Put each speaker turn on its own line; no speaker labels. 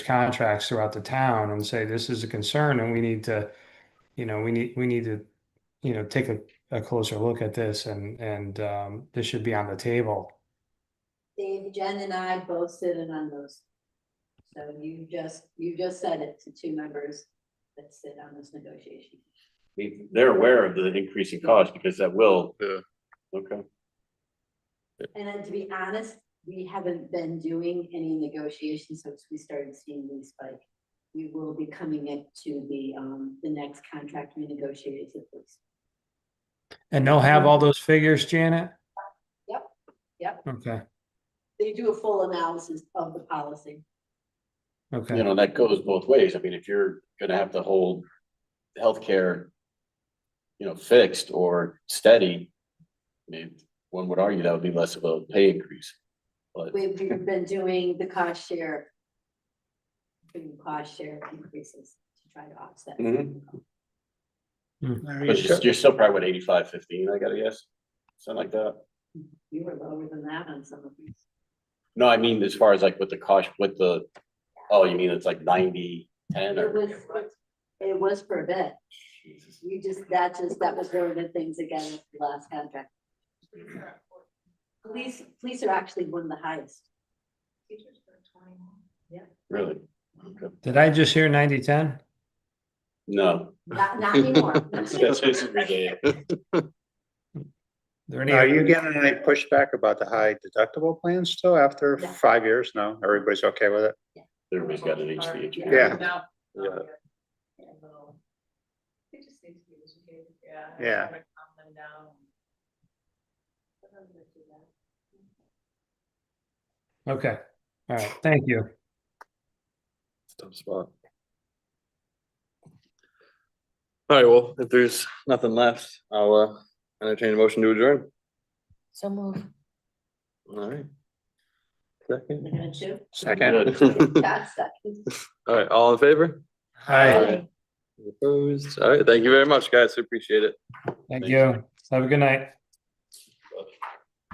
contracts throughout the town and say, this is a concern and we need to, you know, we need, we need to, you know, take a, a closer look at this and, and, um, this should be on the table.
Dave, Jen and I both sit in on those. So you just, you just said it to two members that sit on this negotiation.
They- They're aware of the increasing cost because that will.
Yeah.
Okay,
And then to be honest, we haven't been doing any negotiations since we started seeing these spike. We will be coming into the, um, the next contract we negotiated with this.
And they'll have all those figures, Janet?
Yep, yep.
Okay,
They do a full analysis of the policy.
you
okay,
know, that goes both ways. I mean, if you're gonna have to hold healthcare. You know, fixed or steady. I mean, one would argue that would be less of a pay increase. But
We've, we've been doing the cost share. Doing cost share increases to try to offset.
Mhm.
Hmm.
Are you
but
sure?
you're you're still probably at eighty-five fifteen, I gotta guess, something like that.
You were lower than that on some of these.
No, I mean, as far as like with the cost, with the, oh, you mean it's like ninety, ten
It
or?
was, it was for a bit.
Jesus.
We just, that just, that was one of the things again with the last contract. Police, police are actually one of the highest.
Really? Okay.
did I just hear ninety, ten?
No.
Not, not anymore.
That's basically it.
There any?
Now, Are
other-
you getting any pushback about the high deductible plan still after
No.
five years? No, everybody's okay with it?
Everybody's got an HVAC.
Yeah.
Yeah.
It just needs to be educated, yeah. and
Yeah.
kinda Calm them down. Sometimes I do that.
Okay, all right, thank you.
Tough spot. All right, well, if there's nothing left, I'll uh entertain a motion to adjourn.
So move.
All right. Second.
We're gonna do.
Second,
That's second.
All right, all in favor?
Hi,
Aye.
Opposed? All right, thank you very much, guys. I Appreciate it.
thank you. Have a good night.